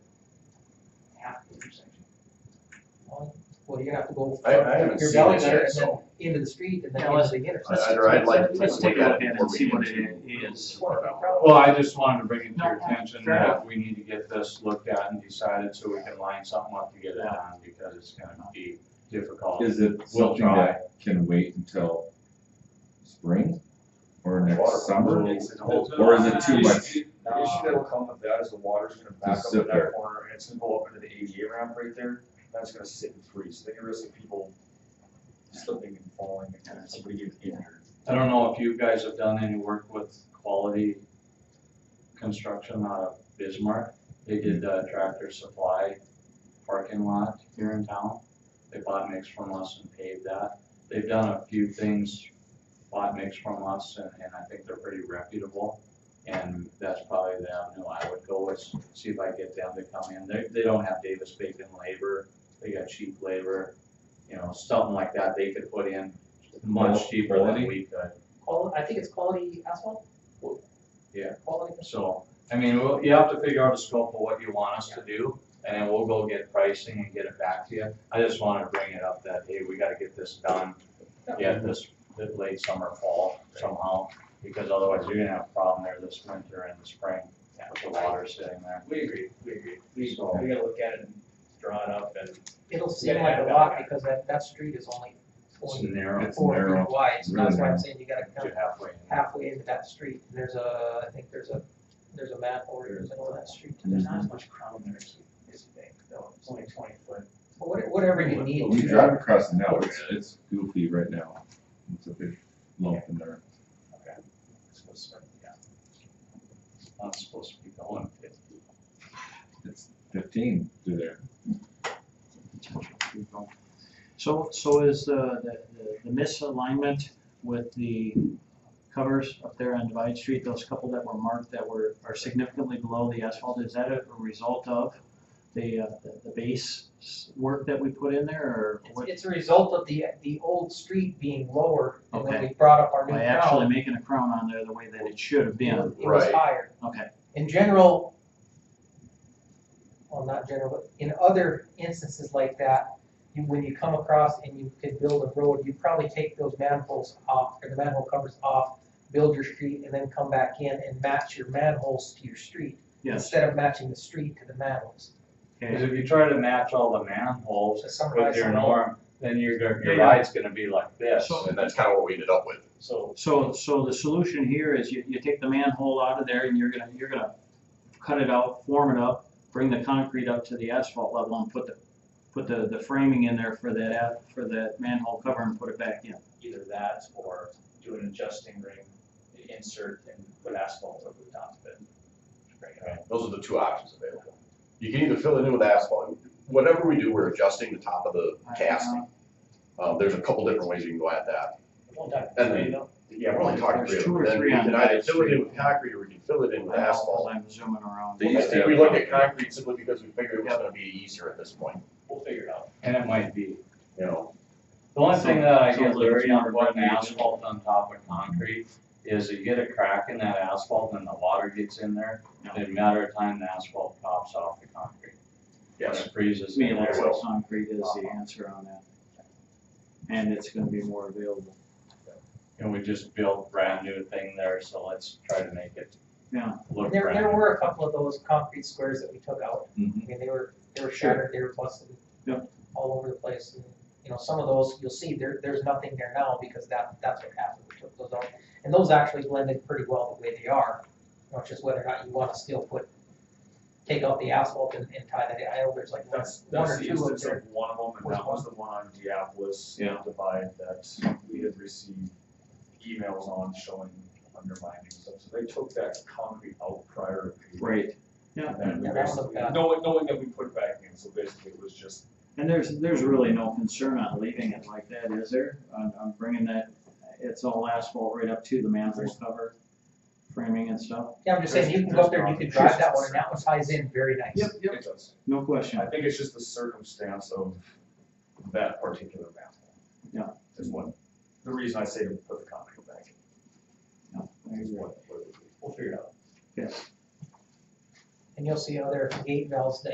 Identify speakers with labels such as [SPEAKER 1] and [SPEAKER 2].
[SPEAKER 1] well, you're gonna have to go.
[SPEAKER 2] I, I haven't
[SPEAKER 1] Your
[SPEAKER 2] seen it
[SPEAKER 1] belly
[SPEAKER 2] yet,
[SPEAKER 1] button
[SPEAKER 2] so
[SPEAKER 1] into the street and then
[SPEAKER 3] Yeah,
[SPEAKER 1] into the intersection.
[SPEAKER 2] I- I'd, I'd like to
[SPEAKER 3] Let's
[SPEAKER 2] take a look at it
[SPEAKER 3] and
[SPEAKER 2] before we
[SPEAKER 3] see
[SPEAKER 2] get
[SPEAKER 3] what
[SPEAKER 2] too
[SPEAKER 3] it is.
[SPEAKER 2] far out.
[SPEAKER 4] Well, I just wanted to bring it to your
[SPEAKER 1] No,
[SPEAKER 4] attention
[SPEAKER 1] fair
[SPEAKER 4] that we need to get this looked at and decided so we can line something up to get it on because it's gonna be difficult.
[SPEAKER 5] Is it
[SPEAKER 4] We'll
[SPEAKER 5] something
[SPEAKER 4] try.
[SPEAKER 5] that can wait until spring or
[SPEAKER 2] Water.
[SPEAKER 5] next summer?
[SPEAKER 4] It's a whole-
[SPEAKER 5] Or is it
[SPEAKER 2] The
[SPEAKER 5] too much?
[SPEAKER 2] issue the issue that'll come with that is the water's gonna back
[SPEAKER 5] Just
[SPEAKER 2] up
[SPEAKER 5] sit
[SPEAKER 2] in
[SPEAKER 5] there.
[SPEAKER 2] that corner, and it's gonna go up into the ADA ramp right there, that's gonna sit and freeze, then you're risking people slipping and falling, and somebody getting injured.
[SPEAKER 4] I don't know if you guys have done any work with quality construction out of Bismarck. They did the tractor supply parking lot here in town. They bought mix from us and paved that. They've done a few things, bought mix from us, and, and I think they're pretty reputable. And that's probably the avenue I would go with, see if I get them to come in. They, they don't have Davis Bacon labor, they got cheap labor, you know, something like that they could put in much cheaper than we could.
[SPEAKER 1] Qual, I think it's quality asphalt?
[SPEAKER 4] Yeah.
[SPEAKER 1] Quality.
[SPEAKER 4] So, I mean, we'll- you have to figure out a scope of what you want us to do, and then we'll go get pricing and get it back to you. I just wanted to bring it up that, hey, we gotta get this done, get this this late summer, fall somehow, because otherwise you're gonna have a problem there this winter and the spring with the water sitting there.
[SPEAKER 3] We agree, we agree. We,
[SPEAKER 4] So-
[SPEAKER 3] we gotta look at it and draw it up and.
[SPEAKER 1] It'll seem like a lot because that, that street is only
[SPEAKER 4] It's
[SPEAKER 1] twenty,
[SPEAKER 4] narrow,
[SPEAKER 5] It's
[SPEAKER 1] four
[SPEAKER 5] narrow.
[SPEAKER 1] feet wide, so
[SPEAKER 5] Really
[SPEAKER 1] that's why
[SPEAKER 5] narrow.
[SPEAKER 1] I'm saying you gotta
[SPEAKER 4] to
[SPEAKER 1] come
[SPEAKER 4] halfway.
[SPEAKER 1] halfway into that street. And There's a, I think there's a, there's a manhole right in the middle of that street.
[SPEAKER 3] There's not as much crown there as you think, though, it's only twenty foot.
[SPEAKER 1] But what- Whatever you need.
[SPEAKER 5] You drive across it now, it's, it's goofy right now. It's a big lump in there.
[SPEAKER 3] It's supposed to, yeah.
[SPEAKER 4] Not supposed to be going fifty.
[SPEAKER 5] It's fifteen through there.
[SPEAKER 6] So, so is the, the- the misalignment with the covers up there on Divide Street, those couple that were marked that were, are significantly below the asphalt, is that a result of the, uh, the- the base s- work that we put in there, or
[SPEAKER 1] It's,
[SPEAKER 6] what?
[SPEAKER 1] it's a result of the, the old street being lower and when
[SPEAKER 6] Okay.
[SPEAKER 1] we brought up our new
[SPEAKER 6] By
[SPEAKER 1] crown,
[SPEAKER 6] actually making a crown on there the way that it should have
[SPEAKER 1] it
[SPEAKER 6] been,
[SPEAKER 1] was- it was
[SPEAKER 2] Right.
[SPEAKER 1] higher.
[SPEAKER 6] okay,
[SPEAKER 1] in general, well, not general, but in other instances like that, you, when you come across and you could build a road, you probably take those manholes off, or the manhole covers off, build your street, and then come back in and match your manholes to your street.
[SPEAKER 6] yes,
[SPEAKER 1] Instead of matching the street to the manholes.
[SPEAKER 4] Cause
[SPEAKER 6] okay,
[SPEAKER 4] if you try to match all the manholes
[SPEAKER 1] So summarize
[SPEAKER 4] with your
[SPEAKER 1] some of-
[SPEAKER 4] norm, then your, your
[SPEAKER 6] Yeah.
[SPEAKER 4] ride's gonna be like this.
[SPEAKER 6] So-
[SPEAKER 2] And that's kinda what we ended up with.
[SPEAKER 3] So,
[SPEAKER 6] so, so the solution here is you, you take the manhole out of there and you're gonna, you're gonna cut it out, form it up, bring the concrete up to the asphalt level and put the put the, the framing in there for that, app- for that manhole cover and put it back in.
[SPEAKER 3] either that or do an adjusting ring, insert and put asphalt over the top of it. Bring it up.
[SPEAKER 2] Those are the two options available. You can either fill it in with asphalt, whatever we do, we're adjusting the top of the casting. Uh, there's a couple different ways you can go at that.
[SPEAKER 3] One time,
[SPEAKER 2] And then-
[SPEAKER 3] you know,
[SPEAKER 2] Yeah, we're only talking three
[SPEAKER 6] There's
[SPEAKER 2] of
[SPEAKER 6] two
[SPEAKER 2] them.
[SPEAKER 6] or
[SPEAKER 2] Then we
[SPEAKER 6] three on
[SPEAKER 2] can
[SPEAKER 6] that
[SPEAKER 2] either fill it in with concrete or we can fill it in with asphalt.
[SPEAKER 6] I'm zooming around.
[SPEAKER 2] I
[SPEAKER 5] They used to
[SPEAKER 2] think
[SPEAKER 5] have
[SPEAKER 2] we looked
[SPEAKER 5] concrete.
[SPEAKER 2] at concrete simply because we figured it was gonna be easier at this point,
[SPEAKER 3] we'll figure it out.
[SPEAKER 4] And it might be.
[SPEAKER 2] you know?
[SPEAKER 4] The only thing that I
[SPEAKER 6] So-
[SPEAKER 4] get
[SPEAKER 6] so it's
[SPEAKER 4] leery on
[SPEAKER 6] never
[SPEAKER 4] putting
[SPEAKER 6] been used.
[SPEAKER 4] asphalt on top of concrete is you get a crack in that asphalt and the water gets in there,
[SPEAKER 6] Yeah.
[SPEAKER 4] in a matter of time, the asphalt pops off the concrete. When it freezes
[SPEAKER 6] To me,
[SPEAKER 4] in
[SPEAKER 6] it looks
[SPEAKER 4] there.
[SPEAKER 6] like concrete is the answer on that. And it's gonna be more available.
[SPEAKER 4] And we just built brand new thing there, so let's try to make it
[SPEAKER 6] Yeah.
[SPEAKER 4] look
[SPEAKER 1] There,
[SPEAKER 4] brand
[SPEAKER 1] there
[SPEAKER 4] new.
[SPEAKER 1] were a couple of those concrete squares that we took out.
[SPEAKER 5] Mhm.
[SPEAKER 1] I mean, they were, they were
[SPEAKER 6] Sure.
[SPEAKER 1] shattered, they were busted
[SPEAKER 6] Yep.
[SPEAKER 1] all over the place. And, You know, some of those, you'll see, there, there's nothing there now because that, that's what happened, we took those out. And those actually blended pretty well the way they are, you know, just whether or not you wanna still put, take out the asphalt and, and tie that, in. I know there's like one
[SPEAKER 2] That's,
[SPEAKER 1] one
[SPEAKER 2] that's
[SPEAKER 1] or
[SPEAKER 2] the
[SPEAKER 1] two of
[SPEAKER 2] instance
[SPEAKER 1] there.
[SPEAKER 2] of one of them, and that was the one on Diapolis
[SPEAKER 6] Yeah.
[SPEAKER 2] divide that we had received emails on showing undermining stuff. So they took that concrete out prior to.
[SPEAKER 6] Right.
[SPEAKER 2] And then we
[SPEAKER 1] Yeah, that was
[SPEAKER 2] basically,
[SPEAKER 1] bad.
[SPEAKER 2] knowing, knowing that we put it back in, so basically it was just,
[SPEAKER 6] And there's, there's really no concern on leaving it like that, is there? On, on bringing that, it's all asphalt right up to the manhole cover, framing and stuff?
[SPEAKER 1] Yeah, I'm just saying, you can go up there, and you can drive that one, and that one ties in very nice.
[SPEAKER 2] it does.
[SPEAKER 6] No question.
[SPEAKER 2] I think it's just the circumstance of that particular map.
[SPEAKER 6] Yeah.
[SPEAKER 2] Is what, the reason I say to put the concrete back
[SPEAKER 6] No, I
[SPEAKER 2] in, is
[SPEAKER 6] agree.
[SPEAKER 2] what, what it would be.
[SPEAKER 3] We'll figure it out.
[SPEAKER 1] And you'll see other gate valves that